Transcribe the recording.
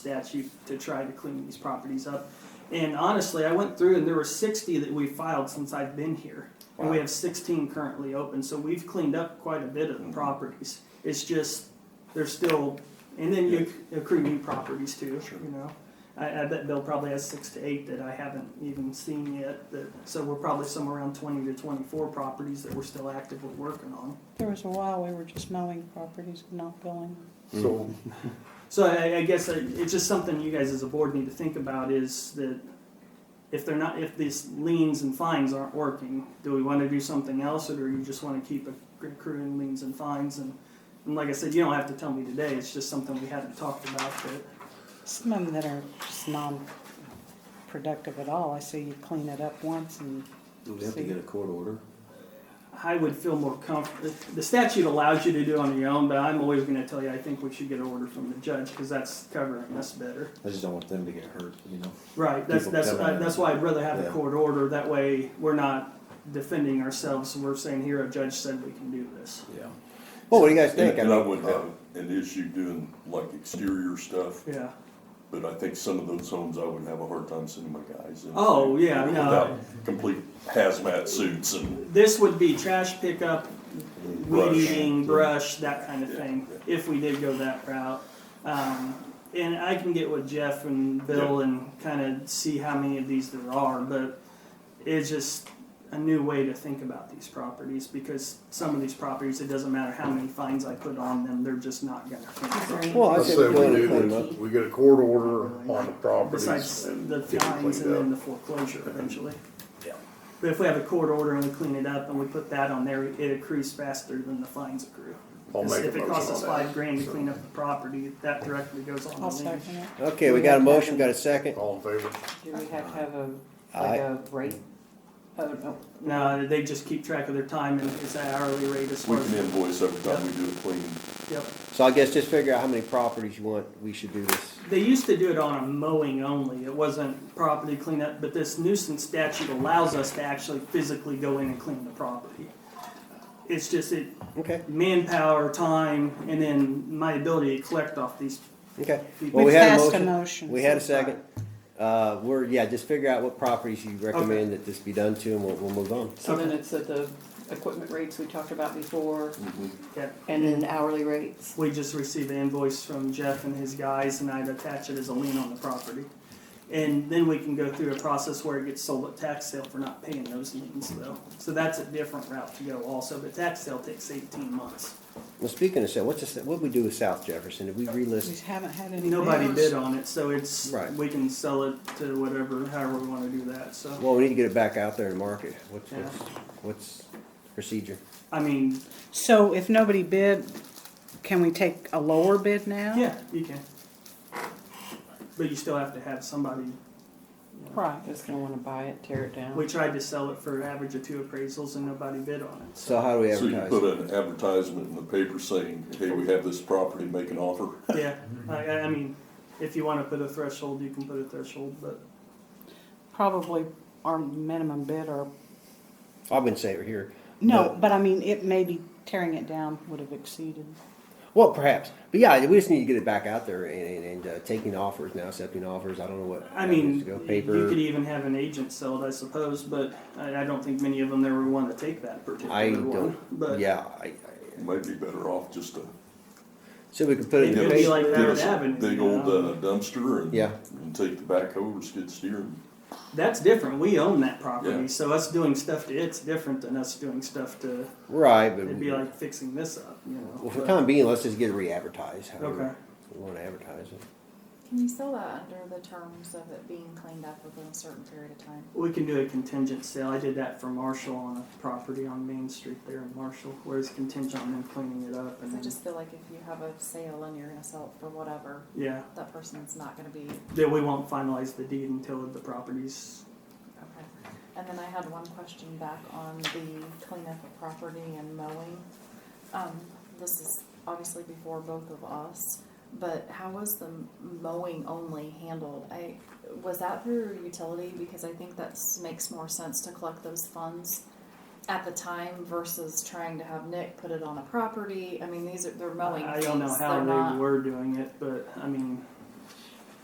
statute to try to clean these properties up. And honestly, I went through and there were sixty that we filed since I've been here. And we Wow. have sixteen currently open, so we've cleaned up quite a bit of Mm-hmm. the properties. It's just, there's still, and then you accrue new properties too, Sure. you know? I, I bet Bill probably has six to eight that I haven't even seen yet, that, so we're probably somewhere around twenty to twenty-four properties that we're still actively working on. There was a while we were just mowing properties and not billing. So, So I, I guess I- it's just something you guys as a board need to think about is that if they're not, if these liens and fines aren't working, do we want to do something else or do you just want to keep accruing liens and fines? And, and like I said, you don't have to tell me today, it's just something we haven't talked about that. Some of them that are just non-productive at all. I say you clean it up once and Do we have to get a court order? I would feel more comfortable. The statute allows you to do it on your own, but I'm always going to tell you I think we should get an order from the judge because that's covering us better. I just don't want them to get hurt, you know? Right, that's, people that's, coming I- in. that's why I'd rather have a Yeah. court order, that way we're not defending ourselves, we're saying here, a judge said we can do this. Yeah. well, what do you guys think? I And I mean, would have an issue doing like exterior stuff, Yeah, but I think some of those homes I would have a hard time sending my guys in. Oh, yeah, no. Without complete hazmat suits and, this would be trash pickup, weed Brush. eating, brush, that kind of thing, Yeah. if we did go that route. Um, and I can get with Jeff and Bill and kind of see how many of these there are, but it's just a new way to think about these properties, because some of these properties, it doesn't matter how many fines I put on them, they're just not gonna clean up. Is there any- Well, Oh, I I said say we we go to do, clean up. the- we get a court order on the properties Besides and the get it fines and then cleaned the up. foreclosure eventually. Yeah. But if we have a court order and we clean it up and we put that on there, it accrues faster than the fines accrue. I'll make a If it costs us motion on five grand to clean up the property, that directly goes on the I'll lien. second it. Uh, Okay, we got a motion, got a second. that. All in favor? Do we have to have a, Aye. like a rate? Oh, no, No, they just keep track of their time and it's an hourly rate as we far can as, invoice every time we do a clean. yep. So I guess just figure out how many properties you want, we should do this. They used to do it on a mowing only, it wasn't property cleanup, but this nuisance statute allows us to actually physically go in and clean the property. It's just, it, Okay, manpower, time, and then my ability to collect off these. okay. Well, people. we We've had a passed a motion. motion We had a so far. second. Uh, we're, yeah, just figure out what properties you recommend that this be done to and we'll, we'll move on. so then it's at the equipment rates we talked about before, Yeah, and then hourly rates. We just received an invoice from Jeff and his guys, and I'd attach it as a lien on the property. And then we can go through a process where it gets sold at tax sale for not paying those liens though. So that's a different route to go also, but tax sale takes eighteen months. Well, speaking of South, what's this, what'd we do with South Jefferson? Did we We relist? haven't had any. Nobody bids. bid on it, so it's, Right. we can sell it to whatever, however we wanna do that, so. Well, we need to get it back out there and market. What's, Yeah. what's, what's procedure? I mean, So if nobody bid, can we take a lower bid now? yeah, you can. But you still have to have somebody Right. Just gonna wanna buy it, tear it We down. tried to sell it for an average of two appraisals and nobody bid on it. So how do we So you advertise? put it? an advertisement in the paper saying, hey, we have this property, make an offer. Yeah, I, I- I mean, if you wanna put a threshold, you can put a threshold, but Probably our minimum bid or, I've been saying it here. no, but I mean, it maybe tearing it down would have exceeded. Well, perhaps, but yeah, we just need to get it back out there and, and, and uh, taking offers now, accepting offers. I don't know what. I mean, avenues to go. you could paper. even have an agent sell it, I suppose, but I, I don't think many of them ever wanna take that I particular one. don't. But Yeah, I, I, Might be better off just to so we could put It it in could the be paper. like get Merritt us a Avenue, big you old know? uh, dumpster and, Yeah. and take the backhoe or skid steer and that's different, we own that property, Yeah. so us doing stuff to it's different than us doing stuff to, right, but it'd be like fixing this up, you know. well, for the but- time being, let's just get it re-advertised. however Okay. We want to advertise it. Can you sell that under the terms of it being cleaned up within a certain period of time? We can do a contingent sale. I did that for Marshall on a property on Main Street there in Marshall, where it's contingent on them cleaning it up and Because I then, just feel like if you have a sale and you're gonna sell it for whatever, yeah. that person's not gonna be, That we won't finalize the deed until the property's, okay. And then I had one question back on the cleanup of property and mowing. Um, this is obviously before both of us, but how was the mowing only handled? I, was that through utility? Because I think that makes more sense to collect those funds at the time versus trying to have Nick put it on a property. I mean, these are, they're mowing I don't know things, how they're they not- were doing it, but I mean,